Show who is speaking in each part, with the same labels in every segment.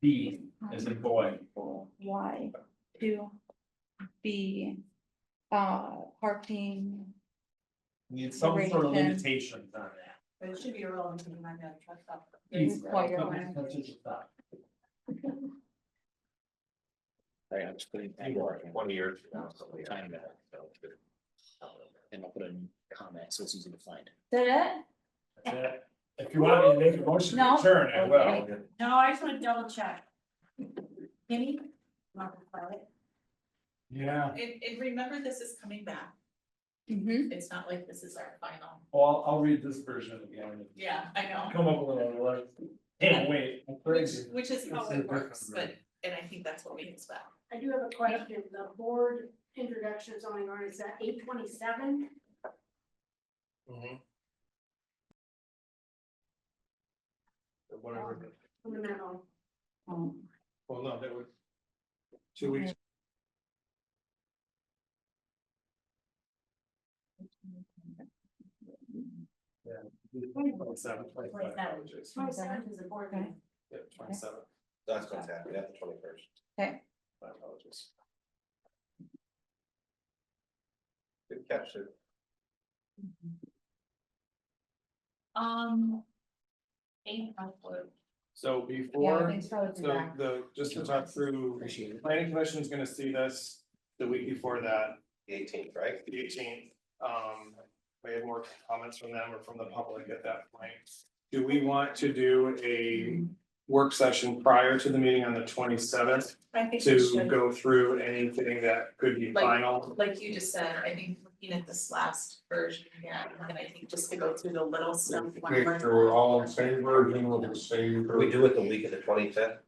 Speaker 1: B is in boy.
Speaker 2: Y Um, to be uh parking.
Speaker 1: Need some sort of
Speaker 2: Duration.
Speaker 1: limitations on that.
Speaker 3: But it should be irrelevant to the my bad truck stop.
Speaker 1: Please,
Speaker 2: Quite your
Speaker 1: come
Speaker 2: way.
Speaker 1: and touch it up.
Speaker 4: Sorry, I'm just putting.
Speaker 5: Twenty years. from now, so yeah.
Speaker 4: Time back. And I'll put in comment, so it's easy to find.
Speaker 2: That
Speaker 1: That's it. If you want me to make a motion to
Speaker 2: No.
Speaker 1: adjourn, I will.
Speaker 2: Okay.
Speaker 3: No, I just wanna double check. Kenny? Mark, Violet?
Speaker 1: Yeah,
Speaker 6: And, and remember, this is coming back,
Speaker 2: it? Mm-hmm.
Speaker 6: it's not like this is our final,
Speaker 1: well, I'll read this version again.
Speaker 6: yeah, I know.
Speaker 1: Come up with a little, like, hey, wait. I'm
Speaker 6: Which,
Speaker 1: crazy.
Speaker 6: which is how
Speaker 1: It's a
Speaker 6: it works,
Speaker 1: different
Speaker 6: but, and I think that's what we expect.
Speaker 7: I do have a question, the board introduction zoning ordinance at eight twenty-seven,
Speaker 5: Mm-hmm. Whatever,
Speaker 7: in the middle,
Speaker 2: Um,
Speaker 5: well, no, that was. Two weeks. Oh,
Speaker 1: Twenty-seven, twenty-five,
Speaker 3: Twenty-seven.
Speaker 1: apologies.
Speaker 3: Twenty-seventh is a board meeting.
Speaker 1: Yeah, twenty-seven,
Speaker 5: That's what's happening, that's the twenty first.
Speaker 1: my apologies.
Speaker 5: Good catch it.
Speaker 6: Um. Ain't no clue.
Speaker 5: So
Speaker 2: Yeah, I
Speaker 5: before,
Speaker 2: think so, it's
Speaker 5: so
Speaker 2: back.
Speaker 5: the, just to talk through,
Speaker 4: Appreciate it.
Speaker 5: planning commission is gonna see this the week before that,
Speaker 8: eighteenth, right?
Speaker 5: the eighteenth. Um, we have more comments from them or from the public at that point. Do we want to do a work session prior to the meeting on the twenty seventh?
Speaker 6: I think we
Speaker 5: To
Speaker 6: should,
Speaker 5: go through anything that could be
Speaker 6: Like-
Speaker 5: final?
Speaker 6: like you just said, I think looking at this last version, yeah, and I think just to go through the little stuff. one
Speaker 9: Make
Speaker 6: more
Speaker 9: sure we're all in
Speaker 6: time.
Speaker 9: favor, and we'll just say.
Speaker 8: Could we do it the week of the twenty fifth?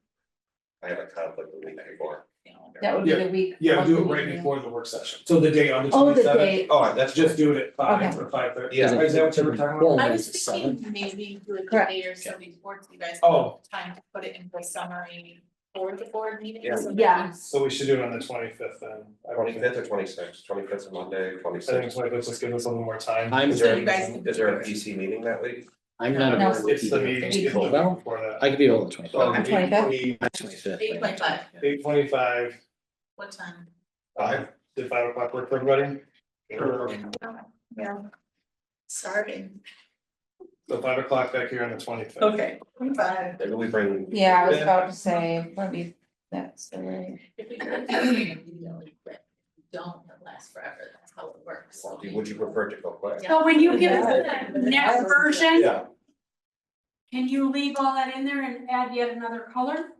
Speaker 8: I have a conflict the week before.
Speaker 6: You know.
Speaker 2: That would be the week.
Speaker 5: Yeah,
Speaker 2: one
Speaker 5: do it
Speaker 2: week,
Speaker 5: right
Speaker 2: yeah.
Speaker 5: before the work session, so the day on the
Speaker 2: Oh,
Speaker 5: twenty
Speaker 2: the
Speaker 5: seventh,
Speaker 2: date,
Speaker 8: Oh, that's
Speaker 5: just
Speaker 8: just,
Speaker 5: do it at five or five thirty.
Speaker 8: Yeah.
Speaker 5: Is that what you were talking about?
Speaker 6: I was thinking maybe do it
Speaker 2: Correct.
Speaker 6: later, so before you guys.
Speaker 5: Oh.
Speaker 6: have Time to put it into a summary for the board meeting.
Speaker 8: Yeah.
Speaker 6: so that
Speaker 2: Yeah.
Speaker 6: we-
Speaker 5: So we should do it on the twenty fifth then. I would
Speaker 8: twenty
Speaker 5: think.
Speaker 8: fifth or twenty sixth, twenty fifth is Monday, twenty
Speaker 5: I think
Speaker 8: sixth.
Speaker 5: twenty fifth just gives us a little more time.
Speaker 4: I'm,
Speaker 8: Is
Speaker 6: So
Speaker 8: there,
Speaker 6: you guys can-
Speaker 8: is there a PC meeting that week?
Speaker 4: I'm not.
Speaker 2: No.
Speaker 4: available
Speaker 5: It's the
Speaker 4: either.
Speaker 5: meeting, it's the
Speaker 4: Well,
Speaker 5: week before that,
Speaker 4: I could be all the twenty
Speaker 8: So
Speaker 4: fifth.
Speaker 2: Okay. 25th?
Speaker 4: Twenty fifth.
Speaker 6: Eight point five.
Speaker 5: eight twenty five,
Speaker 6: What time?
Speaker 5: five, did five o'clock work for everybody? Or-
Speaker 6: Yeah. Starting.
Speaker 5: So five o'clock back here on the twenty fifth.
Speaker 6: Okay. Five.
Speaker 8: Maybe we bring.
Speaker 2: Yeah, I was about to say, let me, that's the right.
Speaker 6: If we don't do it immediately, but don't, it lasts forever, that's how it works.
Speaker 8: Or do you- Would you prefer to go quick?
Speaker 6: Yeah.
Speaker 7: so when you give us
Speaker 6: Yeah.
Speaker 7: the next version,
Speaker 8: Yeah,
Speaker 7: can you leave all that in there and add yet another color?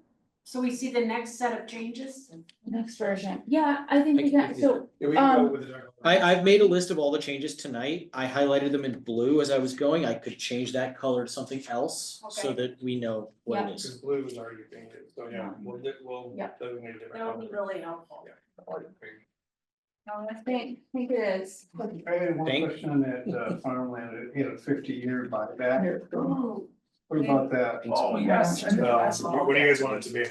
Speaker 7: So we see the next set of changes?
Speaker 2: Next version, yeah, I think we got, so,
Speaker 5: Yeah, we can go
Speaker 2: Um,
Speaker 5: with the dark.
Speaker 4: I, I've made a list of all the changes tonight. I highlighted them in blue as I was going. I could change that color to something else so that we know what it
Speaker 5: Because
Speaker 4: is.
Speaker 5: blue is already painted, so yeah, we'll, we'll
Speaker 2: Yeah.
Speaker 5: designate a different
Speaker 3: That would be
Speaker 5: color.
Speaker 3: really helpful.
Speaker 2: no, I think, I think it is.
Speaker 9: I had one
Speaker 4: Thank-
Speaker 9: question on that uh, farmland, it had a fifty-year buyback,
Speaker 3: Ooh,
Speaker 9: what about that?
Speaker 1: Oh,
Speaker 2: yes.
Speaker 5: So, Um, What what do you guys want it to be?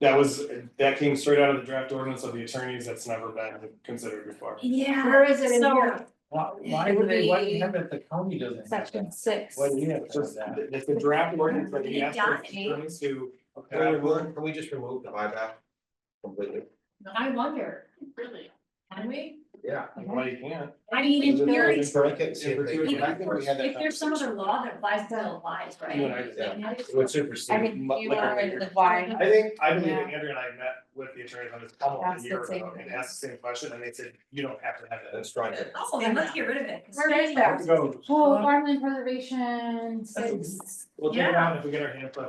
Speaker 5: That was, that came straight out of the draft ordinance of the attorneys, that's never been considered before.
Speaker 2: Yeah.
Speaker 7: Where is it in
Speaker 2: So-
Speaker 7: here?
Speaker 1: Why, why would they, why do you have it, the county doesn't have it?
Speaker 2: Section six.
Speaker 5: Well, yeah, it's just, it's the draft ordinance that he asked for attorneys to.
Speaker 8: Can we remove- can we just remove the buyback completely?
Speaker 3: I wonder,
Speaker 6: Really?
Speaker 3: can we?
Speaker 8: Yeah.
Speaker 5: Well, you can't.
Speaker 7: I mean, in theory,
Speaker 8: Break it, see if they.
Speaker 5: Yeah, I
Speaker 7: if
Speaker 5: think we had that
Speaker 7: if there's some other law that applies to the lies,
Speaker 5: You and
Speaker 7: right?
Speaker 5: I did that.
Speaker 7: Like,
Speaker 8: It Would supersede.
Speaker 2: I think
Speaker 5: Mu-
Speaker 2: you
Speaker 5: like a
Speaker 2: are
Speaker 5: year.
Speaker 2: the why.
Speaker 5: I think, I believe that
Speaker 2: Yeah.
Speaker 5: Andrew and I met with the attorneys on this almost
Speaker 2: That's
Speaker 5: a
Speaker 2: the
Speaker 5: year
Speaker 2: same
Speaker 5: ago and asked the same question and they said, you don't have to have that.
Speaker 8: Let's try it.
Speaker 3: Oh, then let's get rid of it. 'cause
Speaker 2: Where is that?
Speaker 5: Let's go.
Speaker 2: Oh, farmland preservation, six,
Speaker 5: We'll take it out if we get our hands on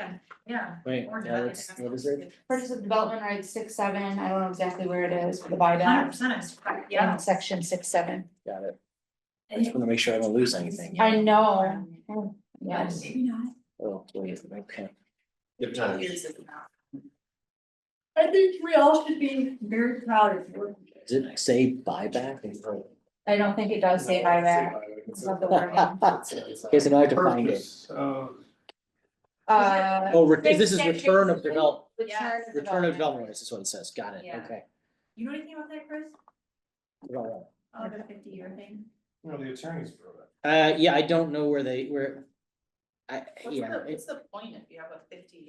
Speaker 5: it.
Speaker 3: Yeah.
Speaker 4: Wait,
Speaker 3: Or
Speaker 4: now it's, what is it?
Speaker 2: purchase of development rights, six, seven, I don't know exactly where it is, for the buy
Speaker 3: Hundred
Speaker 2: down.
Speaker 3: percent, I'm surprised, yeah.
Speaker 2: In section six, seven,
Speaker 4: Got it. I just wanna make sure I don't lose anything.
Speaker 2: I know, yes.
Speaker 3: Maybe not.
Speaker 4: Oh, wait, okay.
Speaker 8: Good times.
Speaker 6: Years is enough.
Speaker 3: I think we all should be very proud of you.
Speaker 4: Did I say buyback?
Speaker 2: I don't think it does say buyback, it's not the wording.
Speaker 4: Okay, so now I have to find it.
Speaker 9: Purchase, uh,
Speaker 2: Uh.
Speaker 4: Oh, re- this is
Speaker 2: six, six,
Speaker 4: return
Speaker 2: six,
Speaker 4: of develop,
Speaker 2: Return of
Speaker 4: return of
Speaker 2: development.
Speaker 4: development, this is what it says. Got it,
Speaker 3: Yeah.
Speaker 4: okay.
Speaker 3: You know anything about that, Chris?
Speaker 4: Well,
Speaker 3: Oh, the fifty year thing?
Speaker 5: No, the attorneys for that.
Speaker 4: Uh, yeah, I don't know where they, where. I,
Speaker 6: What's
Speaker 4: yeah.
Speaker 6: the,
Speaker 4: it-
Speaker 6: what's the point if you have a fifty